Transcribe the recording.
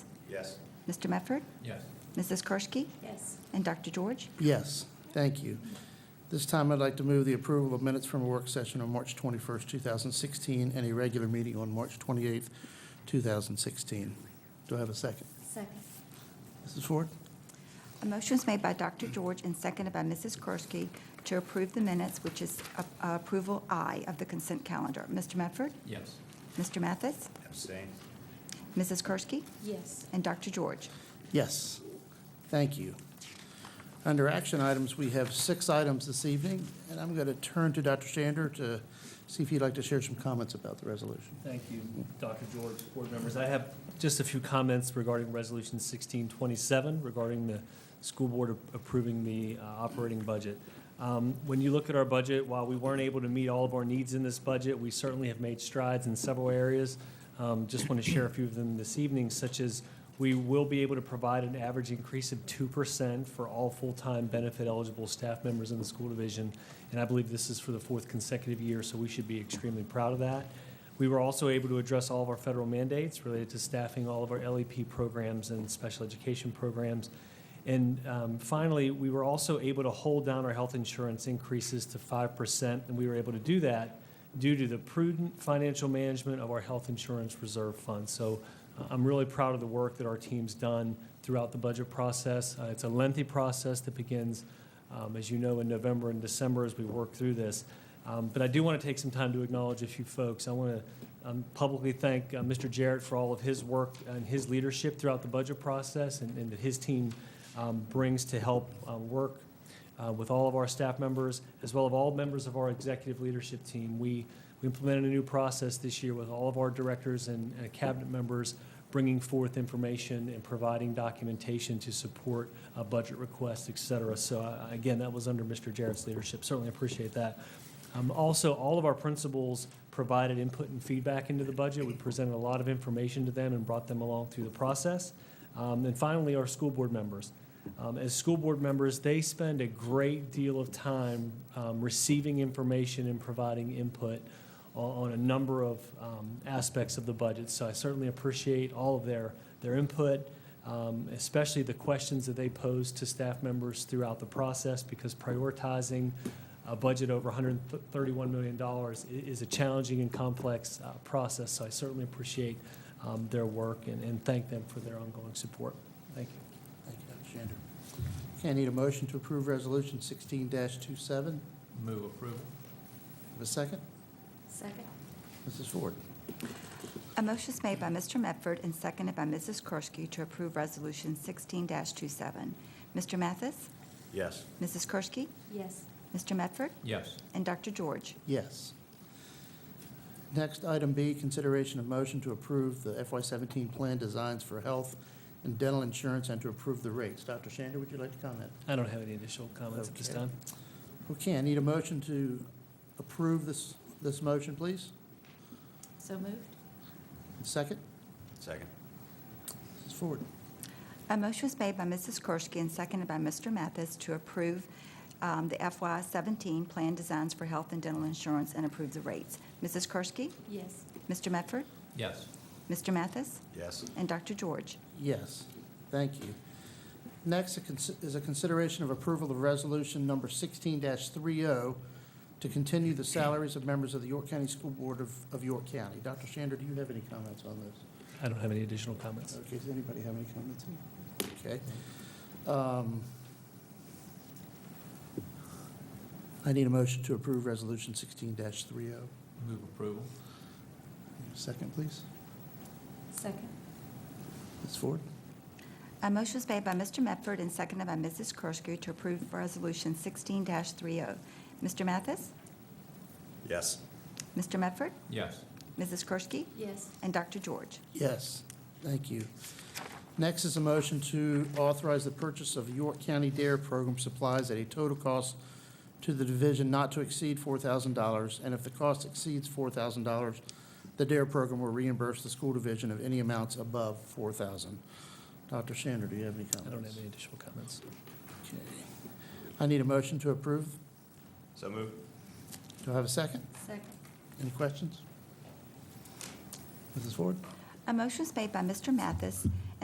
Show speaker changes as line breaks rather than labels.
Yes.
Mr. Medford,
Yes.
Mrs. Kersky,
Yes.
and Dr. George.
Yes, thank you. This time, I'd like to move the approval of minutes from a work session on March 21st, 2016, and a regular meeting on March 28th, 2016. Do I have a second?
Second.
Mrs. Ford?
A motion is made by Dr. George and seconded by Mrs. Kersky to approve the minutes, which is a- a approval I of the consent calendar. Mr. Medford,
Yes.
Mr. Mathis,
Abstain.
Mrs. Kersky,
Yes.
and Dr. George.
Yes, thank you. Under action items, we have six items this evening, and I'm going to turn to Dr. Shander to see if he'd like to share some comments about the resolution.
Thank you, Dr. George, board members. I have just a few comments regarding Resolution 1627 regarding the school board approving the uh, operating budget. Um, When you look at our budget, while we weren't able to meet all of our needs in this budget, we certainly have made strides in several areas. Um, Just want to share a few of them this evening, such as we will be able to provide an average increase of 2% for all full-time benefit eligible staff members in the school division. And I believe this is for the fourth consecutive year, so we should be extremely proud of that. We were also able to address all of our federal mandates related to staffing all of our LEP programs and special education programs. And um, finally, we were also able to hold down our health insurance increases to 5%, and we were able to do that due to the prudent financial management of our health insurance reserve fund. So uh, I'm really proud of the work that our team's done throughout the budget process. Uh, It's a lengthy process that begins, um, as you know, in November and December as we work through this. Um, But I do want to take some time to acknowledge a few folks. I want to um, publicly thank uh, Mr. Jarrett for all of his work and his leadership throughout the budget process and and that his team um, brings to help uh, work uh, with all of our staff members, as well as all members of our executive leadership team. We we implemented a new process this year with all of our directors and and cabinet members bringing forth information and providing documentation to support uh, budget requests, et cetera. So uh, again, that was under Mr. Jarrett's leadership. Certainly appreciate that. Um, Also, all of our principals provided input and feedback into the budget. We presented a lot of information to them and brought them along through the process. Um, And finally, our school board members. Um, As school board members, they spend a great deal of time um, receiving information and providing input on on a number of um, aspects of the budget. So I certainly appreciate all of their, their input, um, especially the questions that they pose to staff members throughout the process, because prioritizing a budget over $131 million i- is a challenging and complex uh, process. So I certainly appreciate um, their work and and thank them for their ongoing support. Thank you.
Thank you, Dr. Shander. Okay, I need a motion to approve Resolution 16-27. Have
Move approval.
a second?
Second.
Mrs. Ford?
A motion is made by Mr. Medford and seconded by Mrs. Kersky to approve Resolution 16-27. Mr. Mathis,
Yes.
Mrs. Kersky,
Yes.
Mr. Medford,
Yes.
and Dr. George.
Yes. Next, item B, consideration of motion to approve the FY17 plan designs for health and dental insurance and to approve the rates. Dr. Shander, would you like to comment?
I don't have any additional comments at this
Okay.
time.
Okay, I need a motion to approve this, this motion, please.
So moved?
Second,
Second.
Mrs. Ford.
A motion was made by Mrs. Kersky and seconded by Mr. Mathis to approve um, the FY17 Plan Designs for Health and Dental Insurance and approve the rates. Mrs. Kersky,
Yes.
Mr. Medford,
Yes.
Mr. Mathis,
Yes.
and Dr. George.
Yes, thank you. Next a cons- is a consideration of approval of resolution number 16-30 to continue the salaries of members of the York County School Board of, of York County. Dr. Shander, do you have any comments on this?
I don't have any additional comments.
Okay, does anybody have any comments? Okay. Um, I need a motion to approve Resolution 16-30.
Move approval.
oh. Second, please.
Second.
Ms. Ford?
A motion was made by Mr. Medford and seconded by Mrs. Kersky to approve Resolution 16-30. Mr. oh. Mathis,
Yes.
Mr. Medford,
Yes.
Mrs. Kersky,
Yes.
and Dr. George.
Yes, thank you. Next is a motion to authorize the purchase of York County Dare Program supplies at a total cost to the division not to exceed $4,000, and if the cost exceeds $4,000, the Dare Program will reimburse the school division of any amounts above $4,000. Dr. Shander, do you have any comments?
I don't have any additional comments.
Okay. I need a motion to approve.
So moved.
Do I have a second?
Second.
Any questions? Mrs. Ford?
A motion is made by Mr. Mathis